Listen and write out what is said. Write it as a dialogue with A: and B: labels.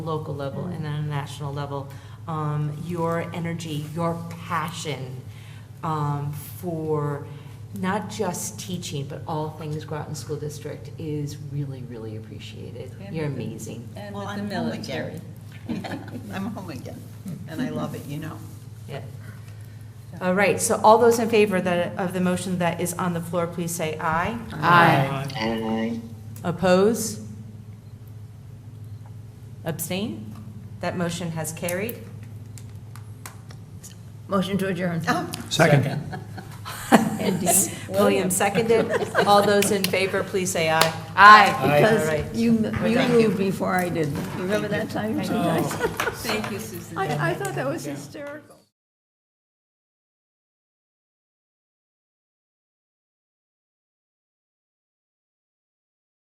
A: local level and on a national level, um, your energy, your passion um, for not just teaching, but all things Groton School District is really, really appreciated.
B: And
A: You're
B: with the-
A: amazing.
B: And
C: Well,
B: with the
C: I'm home again.
B: military.
C: I'm home again, and I love it, you know.
A: Yeah. All right, so all those in favor that, of the motion that is on the floor, please say aye. Aye. Oppose? Abstain? That motion has carried.
D: Motion to adjourn.
E: Second.
A: William seconded. All those in favor, please say aye. Aye. All right.
D: Because you, you moved before I did. You Remember that time? you guys?
B: Thank you, Susan.
D: I, I thought that was hysterical.